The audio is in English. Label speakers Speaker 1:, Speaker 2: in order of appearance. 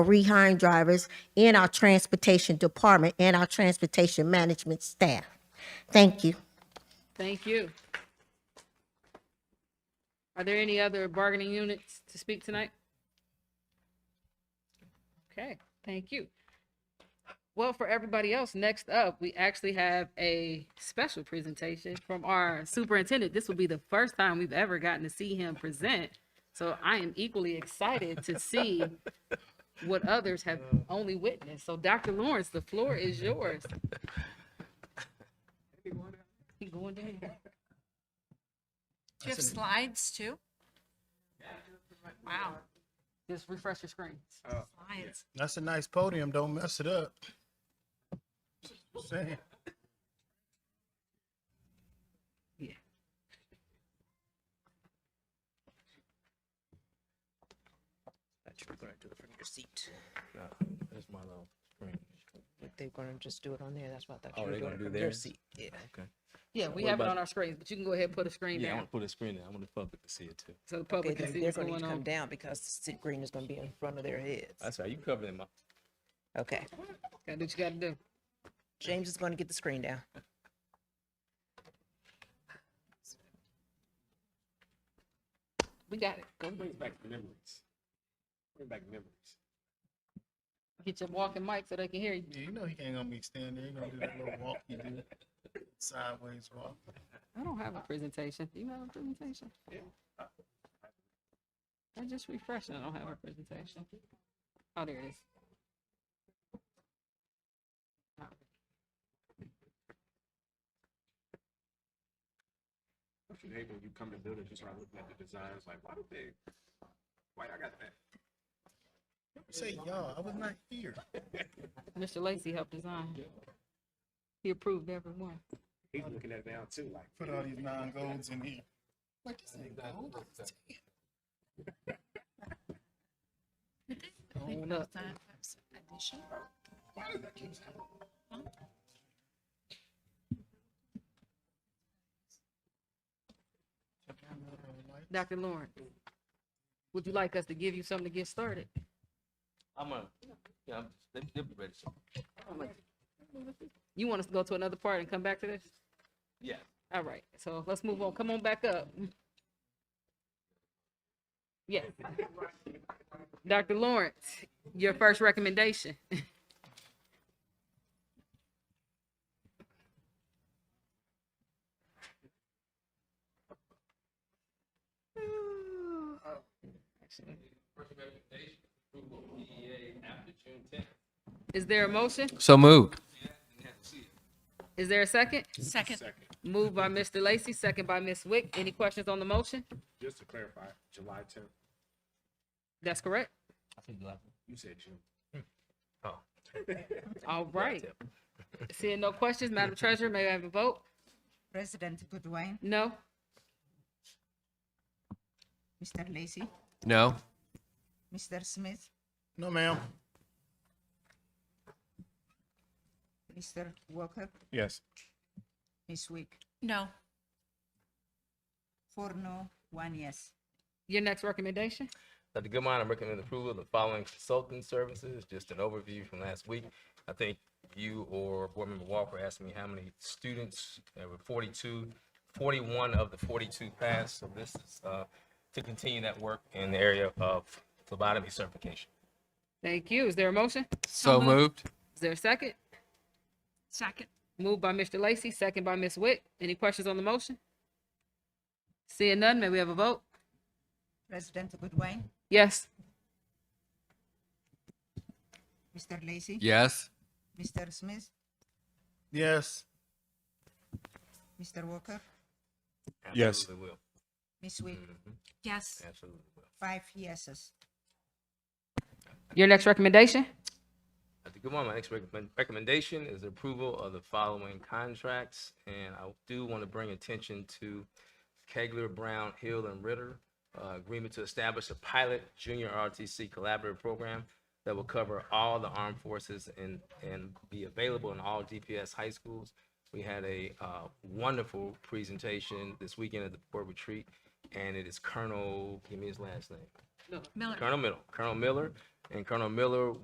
Speaker 1: rehiring drivers in our transportation department and our transportation management staff. Thank you.
Speaker 2: Thank you. Are there any other bargaining units to speak tonight? Okay, thank you. Well, for everybody else, next up, we actually have a special presentation from our superintendent. This will be the first time we've ever gotten to see him present. So I am equally excited to see what others have only witnessed. So Dr. Lawrence, the floor is yours. He going down.
Speaker 3: Do you have slides too? Wow,
Speaker 2: Just refresh your screen.
Speaker 3: slides.
Speaker 4: That's a nice podium. Don't mess it up. Saying.
Speaker 5: That's my little screen.
Speaker 6: Like they're gonna just do it on there, that's what I thought
Speaker 5: Oh,
Speaker 6: you were
Speaker 5: they're
Speaker 6: doing
Speaker 5: gonna
Speaker 6: it
Speaker 5: do
Speaker 6: from your
Speaker 5: theirs?
Speaker 6: seat, yeah.
Speaker 5: Okay.
Speaker 2: Yeah, we
Speaker 5: What
Speaker 2: have it
Speaker 5: about-
Speaker 2: on our screens, but you can go ahead and put a screen
Speaker 5: Yeah, I
Speaker 2: down
Speaker 5: want to put a screen there. I want the public to see it too.
Speaker 2: so the
Speaker 6: Okay,
Speaker 2: public
Speaker 6: then
Speaker 2: can see
Speaker 6: they're
Speaker 2: what's
Speaker 6: gonna need
Speaker 2: going
Speaker 6: to come
Speaker 2: on.
Speaker 6: down because the city green is gonna be in front of their heads.
Speaker 5: That's right. You covering my.
Speaker 6: Okay,
Speaker 2: Gotta do what you gotta do.
Speaker 6: James is gonna get the screen down.
Speaker 2: We got it. Go
Speaker 5: Brings back memories. Bring back memories.
Speaker 2: get your walking mic so they can hear you.
Speaker 4: Yeah, you know he ain't gonna be standing there. He gonna do that little walk he do. Sideways walk.
Speaker 2: I don't have a presentation. You have a presentation? Yeah. I just refreshed. and I don't have a presentation. Oh, there it is.
Speaker 7: today when you come to build it, you start looking at the designs, like, why do they, why I got that?
Speaker 4: Say y'all, I was not here.
Speaker 2: Mr. Lacy helped design. He approved every one.
Speaker 7: He's looking at it now too, like,
Speaker 4: Put all these non golds in here. Like this ain't gold.
Speaker 2: Hold up. Dr. Lauren, would you like us to give you something to get started?
Speaker 5: I'm a. Yeah, I'm, they, they'll be ready. soon.
Speaker 2: You want us to go to another part and come back to this?
Speaker 5: Yeah.
Speaker 2: All right, so let's move on. Come on back up. Yes. Dr. Lawrence, your first recommendation. Is there a motion?
Speaker 8: So moved.
Speaker 2: Is there a second?
Speaker 3: Second.
Speaker 2: Moved by Mr. Lacy, second by Ms. Wick. Any questions on the motion?
Speaker 7: just to clarify, July tenth,
Speaker 2: That's correct.
Speaker 5: I think like.
Speaker 7: you said June.
Speaker 2: All right. Seeing no questions, Madam Treasurer, may I have a vote?
Speaker 9: President Goodwin,
Speaker 2: No?
Speaker 9: Mr. Lacy,
Speaker 8: No.
Speaker 9: Mr. Smith,
Speaker 4: No, ma'am.
Speaker 9: Mr. Walker,
Speaker 4: Yes.
Speaker 9: Ms. Wick.
Speaker 3: No,
Speaker 9: Four no, one yes.
Speaker 2: Your next recommendation?
Speaker 5: Dr. Goodman, I'm recommending approval of the following consulting services, just an overview from last week. I think you or Board Member Walker asked me how many students, uh, there were 42, 41 of the 42 passed. So this is uh, to continue that work in the area of phlebotomy certification.
Speaker 2: Thank you. Is there a motion?
Speaker 8: So moved.
Speaker 2: Is there a second?
Speaker 3: second.
Speaker 2: Moved by Mr. Lacy, second by Ms. Wick. Any questions on the motion? Seeing none, may we have a vote?
Speaker 9: President Goodwin,
Speaker 2: Yes.
Speaker 9: Mr. Lacy,
Speaker 8: Yes.
Speaker 9: Mr. Smith,
Speaker 4: Yes.
Speaker 9: Mr. Walker,
Speaker 4: Yes.
Speaker 5: Absolutely will.
Speaker 9: Ms. Wick,
Speaker 3: Yes,
Speaker 5: Absolutely will.
Speaker 9: five yeses.
Speaker 2: Your next recommendation?
Speaker 5: At the good moment, my next recommend- recommendation is approval of the following contracts. And I do want to bring attention to Kegler, Brown, Hill, and Ritter. uh, Agreement to establish a pilot junior RTC collaborative program that will cover all the armed forces and, and be available in all DPS high schools. We had a uh, wonderful presentation this weekend at the board retreat and it is Colonel, give me his last name.
Speaker 2: Miller.
Speaker 3: Miller.
Speaker 5: Colonel Miller, Colonel Miller, and Colonel Miller